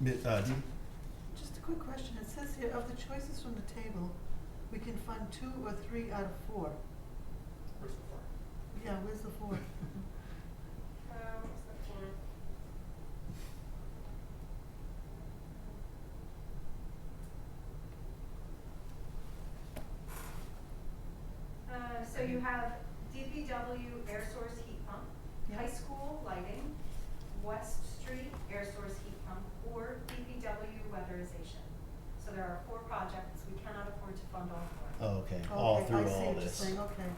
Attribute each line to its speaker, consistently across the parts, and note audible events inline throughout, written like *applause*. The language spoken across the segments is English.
Speaker 1: Mi- uh, Dee?
Speaker 2: Just a quick question. It says here, of the choices from the table, we can find two or three out of four.
Speaker 3: Where's the four?
Speaker 2: Yeah, where's the four?
Speaker 4: Um, what's that for? Uh, so you have DPW air source heat pump,
Speaker 2: Yeah.
Speaker 4: *laughs* high school lighting, West Street air source heat pump, or DPW weatherization. So there are four projects, we cannot afford to fund all four.
Speaker 1: Oh, okay, all
Speaker 2: Okay,
Speaker 1: through all this.
Speaker 2: I see what you're saying, okay.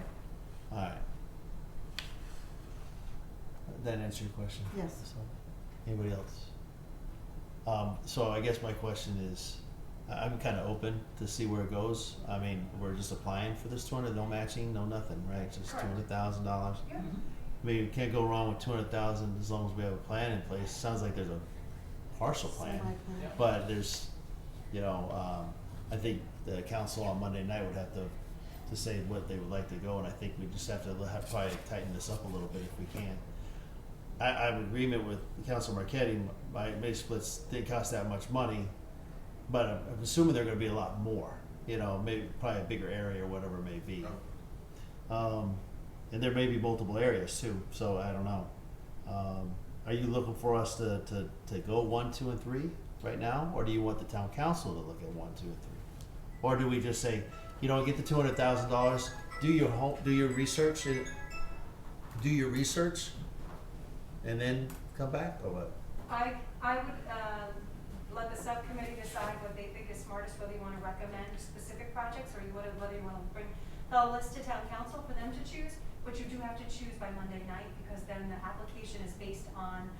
Speaker 1: Alright. That answer your question?
Speaker 2: Yes.
Speaker 1: So, Anybody else? Um, so I guess my question is, I- I'm kinda open to see where it goes. I mean, we're just applying for this two hundred, no matching, no nothing, right? Just two
Speaker 4: Correct.
Speaker 1: hundred thousand dollars.
Speaker 4: Yeah,
Speaker 1: I mean, you can't go wrong with two hundred thousand as long as we have a plan in place. Sounds like there's a partial plan.
Speaker 2: Semi-plan.
Speaker 3: Yeah.
Speaker 1: But there's, you know, um, I think the council on Monday night would have to, to say what they would like to go, and I think we just have to have, probably tighten this up a little bit if we can. I, I'm in agreement with Council Marquetti, my, my splits didn't cost that much money, but I'm, I'm assuming they're gonna be a lot more, you know, maybe, probably a bigger area or whatever it may be. Um, and there may be multiple areas too, so I don't know. Um, are you looking for us to, to, to go one, two, and three right now, or do you want the town council to look at one, two, and three? Or do we just say, you know, get the two hundred thousand dollars, do your home, do your research, and do your research, and then come back or what?
Speaker 4: I, I would, um, let the subcommittee decide what they think is smartest, whether you wanna recommend specific projects, or you wanna, whether you wanna bring the list to town council for them to choose, but you do have to choose by Monday night, because then the application is based on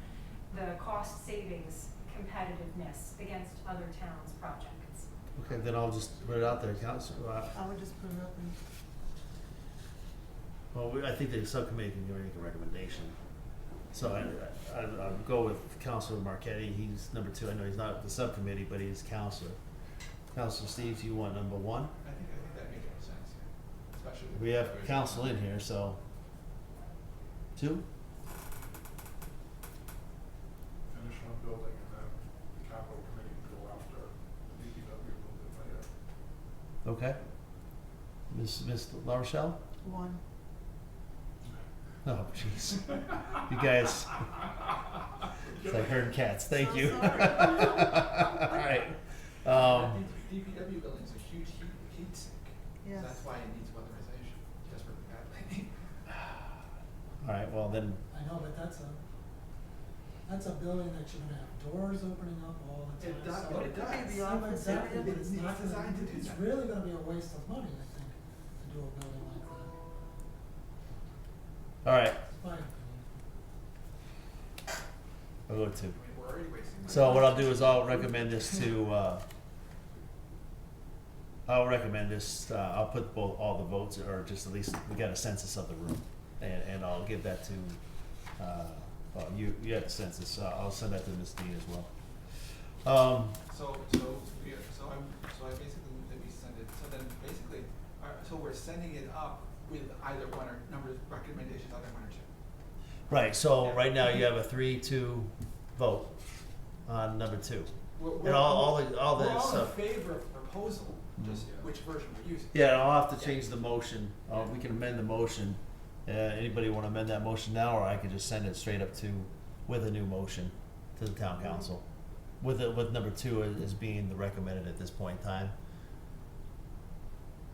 Speaker 4: the cost savings competitiveness against other towns' projects.
Speaker 1: Okay, then I'll just put it out there, council, uh,
Speaker 2: I would just put it up and,
Speaker 1: well, we- I think the subcommittee can make a recommendation. So I, I, I'll go with Councilor Marquetti, he's number two, I know he's not with the subcommittee, but he's counselor. Counselor Steve, you want number one?
Speaker 3: I think, I think that makes more sense, yeah. especially. with
Speaker 1: We have
Speaker 3: the-
Speaker 1: council in here, so. Two?
Speaker 5: finish one building and then the capital committee can go after the DPW a little bit later.
Speaker 1: Okay. Miss Miss La Rochelle?
Speaker 2: one.
Speaker 1: Oh, jeez. You guys, it's like herding cats. Thank
Speaker 2: So
Speaker 1: you.
Speaker 2: sorry.
Speaker 1: *laughs* All right. Um,
Speaker 3: The DPW building's a huge heat, heat sink.
Speaker 2: Yes.
Speaker 3: That's why it needs weatherization, just for bad *laughs* lighting.
Speaker 1: all right. Well, then,
Speaker 6: I know, but that's a, that's a building that you're gonna have doors opening up all the time,
Speaker 3: It
Speaker 6: so.
Speaker 3: does, but
Speaker 2: Could
Speaker 3: it
Speaker 2: be
Speaker 3: does.
Speaker 2: the
Speaker 6: I know
Speaker 2: office
Speaker 6: exactly,
Speaker 2: area,
Speaker 6: but
Speaker 3: It's
Speaker 6: it's not gonna-
Speaker 3: designed to do
Speaker 6: It's
Speaker 3: that.
Speaker 6: really gonna be a waste of money, I think, to do a building like that,
Speaker 1: all right.
Speaker 6: It's my opinion.
Speaker 1: I'll go two.
Speaker 3: I mean, we're already wasting. money.
Speaker 1: So what I'll do is I'll recommend this to. Uh, I'll recommend this. Uh, I'll put both all the votes, or just at least we got a census of the room, and, and I'll give that to. Uh, oh, you you have the census. Uh, I'll send that to Miss Dean as well. Um,
Speaker 3: So, so, we, so I'm, so I basically move that we send it, so then basically, uh, so we're sending it up with either one or, number, recommendations, either one or two.
Speaker 1: Right, so
Speaker 3: Yeah.
Speaker 1: right now you have a three, two vote on number two.
Speaker 3: We're-
Speaker 1: And
Speaker 3: we're-
Speaker 1: all, all the, all
Speaker 3: We're
Speaker 1: the
Speaker 3: all in
Speaker 1: stuff.
Speaker 3: favor of the proposal, just
Speaker 5: Mhm.
Speaker 3: which version we're using.
Speaker 1: Yeah, and I'll have to change the motion, uh, we can amend the motion. Uh, anybody wanna amend that motion now, or I could just send it straight up to, with a new motion to the town council? With, it- with number two as, as being the recommended at this point in time.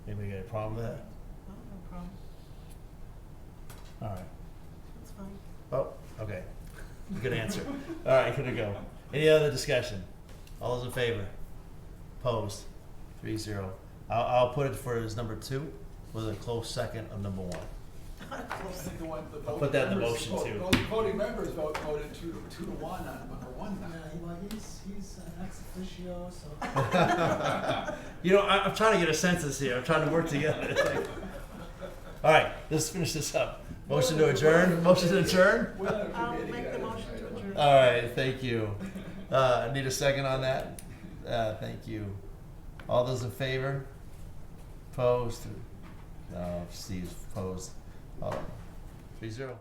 Speaker 1: Anybody got a problem with that?
Speaker 2: No, Oh, no problem.
Speaker 1: Alright,
Speaker 2: That's fine. *laughs*
Speaker 1: oh, okay, good answer. Alright, here we go. Any other discussion? All those in favor? Opposed? Three zero. I'll, I'll put it for as number two with a close second of number one.
Speaker 3: I think the one, the
Speaker 1: I'll
Speaker 3: voting members.
Speaker 1: put that in the motion
Speaker 3: vote-
Speaker 1: too.
Speaker 3: vote- Voting members vote, voted two to, two to one on number one now.
Speaker 6: Yeah, he- well, he's, he's an ex officio, so.
Speaker 3: *laughs*
Speaker 1: You know, I, I'm trying to get a census here. I'm trying to work together. It's like- All right, let's finish this up. Motion to adjourn. Motion to adjourn.
Speaker 3: We're not a
Speaker 2: I'll
Speaker 3: committee,
Speaker 2: make the
Speaker 3: guys.
Speaker 2: motion to adjourn.
Speaker 1: All right, thank you. Uh, need a second on that? Uh, thank you. All those in favor? Opposed? No, Steve's opposed. Oh, three zero.